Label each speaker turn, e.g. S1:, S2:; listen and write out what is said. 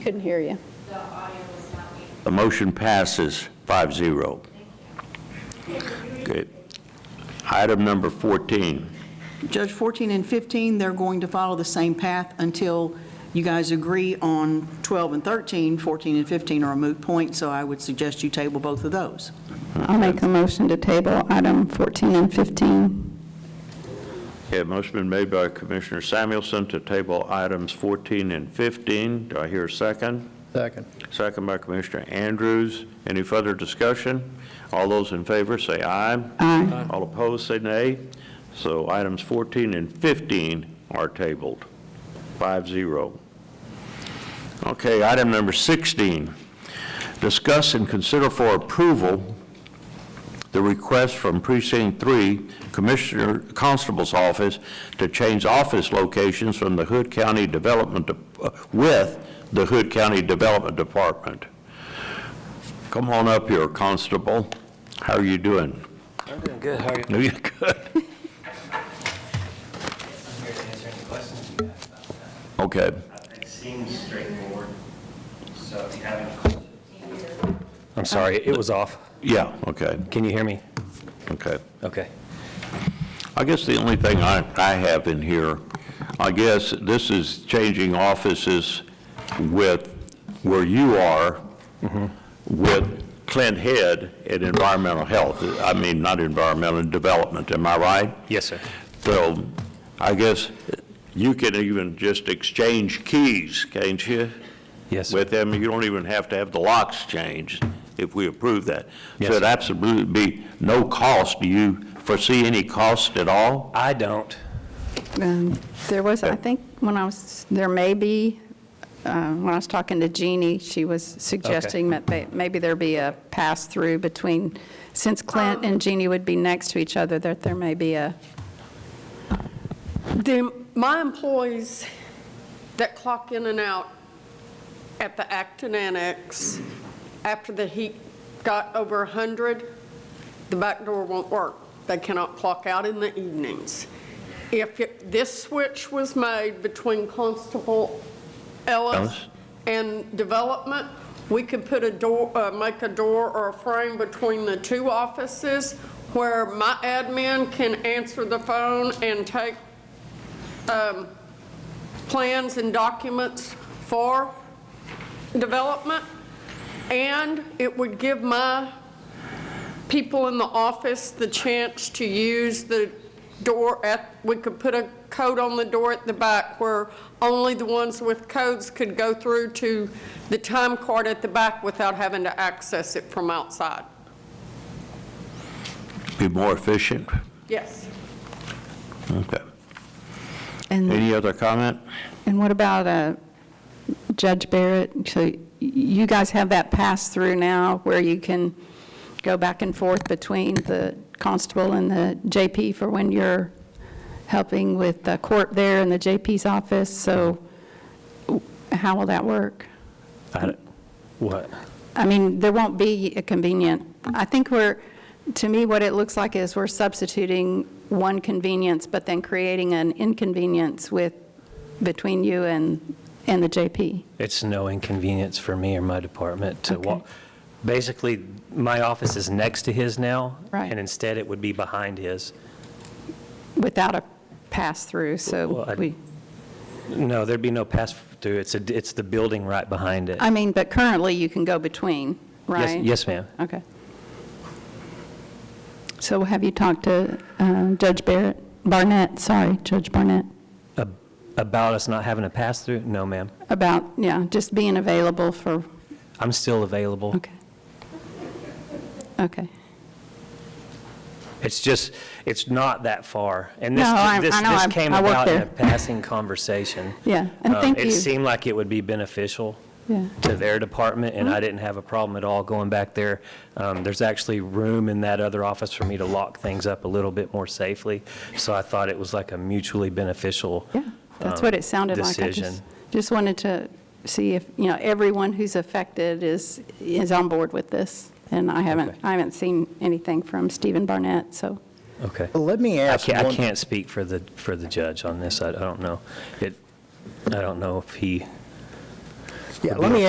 S1: Couldn't hear you.
S2: The motion passes 5-0. Good. Item number 14.
S3: Judge, 14 and 15, they're going to follow the same path until you guys agree on 12 and 13. 14 and 15 are a moot point, so I would suggest you table both of those.
S4: I'll make a motion to table item 14 and 15.
S2: Okay, motion been made by Commissioner Samuelson to table items 14 and 15. Do I hear a second?
S5: Second.
S2: Second by Commissioner Andrews. Any further discussion? All those in favor say aye.
S4: Aye.
S2: All opposed say nay. So items 14 and 15 are tabled, 5-0. Okay, item number 16, discuss and consider for approval the request from Precinct 3 Commissioner Constable's Office to change office locations from the Hood County Development, Dep- with the Hood County Development Department. Come on up here, Constable. How are you doing?
S6: I'm doing good, how are you?
S2: No, you're good.
S6: I'm here to answer any questions you have about that.
S2: Okay,
S6: It seems straightforward, so if you have any questions. I'm sorry, it was off.
S2: yeah, okay,
S6: Can you hear me?
S2: okay.
S6: Okay.
S2: I guess the only thing I, I have in here, I guess this is changing offices with where you are with Clint Head and Environmental Health. I mean, not Environmental Development, am I right?
S6: Yes, sir.
S2: So I guess you can even just exchange keys, can't you?
S6: Yes, sir.
S2: with them, you don't even have to have the locks changed if we approve that.
S6: Yes.
S2: So it'd absolutely be no cost. Do you foresee any cost at all?
S6: I don't.
S4: Um, There was, I think, when I was, there may be, uh, when I was talking to Jeannie, she was suggesting that they- maybe there be a pass-through between, since Clint and Jeannie would be next to each other, that there may be a,
S7: The, my employees that clock in and out at the Acton Annex, after the heat got over 100, the back door won't work. They cannot clock out in the evenings. If it- this switch was made between Constable
S2: Ellis?
S7: Ellis and Development, we could put a door, uh, make a door or a frame between the two offices where my admin can answer the phone and take um, plans and documents for development, and it would give my people in the office the chance to use the door at, we could put a code on the door at the back where only the ones with codes could go through to the time card at the back without having to access it from outside.
S2: Be more efficient?
S7: Yes.
S2: Okay.
S4: and
S2: Any other comment?
S4: and what about uh, Judge Barrett? So y- you guys have that pass-through now where you can go back and forth between the constable and the JP for when you're helping with the court there in the JP's office, so how will that work?
S6: I, what?
S4: I mean, there won't be a convenient, I think we're, to me, what it looks like is we're substituting one convenience, but then creating an inconvenience with, between you and, and the JP.
S6: It's no inconvenience for me or my department to walk.
S4: Okay.
S6: Basically, my office is next to his now.
S4: Right.
S6: And instead, it would be behind his.
S4: without a pass-through,
S6: Well,
S4: so
S6: I-
S4: we,
S6: No, there'd be no pass-through. It's, a- it's the building right behind it.
S4: I mean, but currently you can go between,
S6: Yes-
S4: right?
S6: Yes, ma'am.
S4: Okay. So have you talked to uh, Judge Barrett, Barnett, sorry, Judge Barnett,
S6: Ab- About us not having a pass-through? No, ma'am.
S4: about, yeah, just being available for,
S6: I'm still available.
S4: okay. Okay.
S6: It's just, it's not that far. And this,
S4: No, I'm-
S6: this,
S4: I know,
S6: this
S4: I'm-
S6: came
S4: I work
S6: about in a
S4: there.
S6: passing conversation.
S4: Yeah, and
S6: Um,
S4: thank
S6: It
S4: you.
S6: seemed like it would be beneficial
S4: Yeah. Mm-hmm.
S6: to their department, and I didn't have a problem at all going back there. Um, There's actually room in that other office for me to lock things up a little bit more safely, so I thought it was like a mutually beneficial.
S4: Yeah, that's what
S6: um,
S4: it sounded like. I
S6: Decision.
S4: just- Just wanted to see if, you know, everyone who's affected is, is on board with this, and I haven't,
S6: Okay.
S4: I haven't seen anything from Stephen Barnett, so.
S6: Okay.
S5: Let me
S6: I
S5: ask
S6: can't, I
S5: one,
S6: can't speak for the, for the judge on this. I I don't know. It, I don't know if he,
S5: Yeah, let me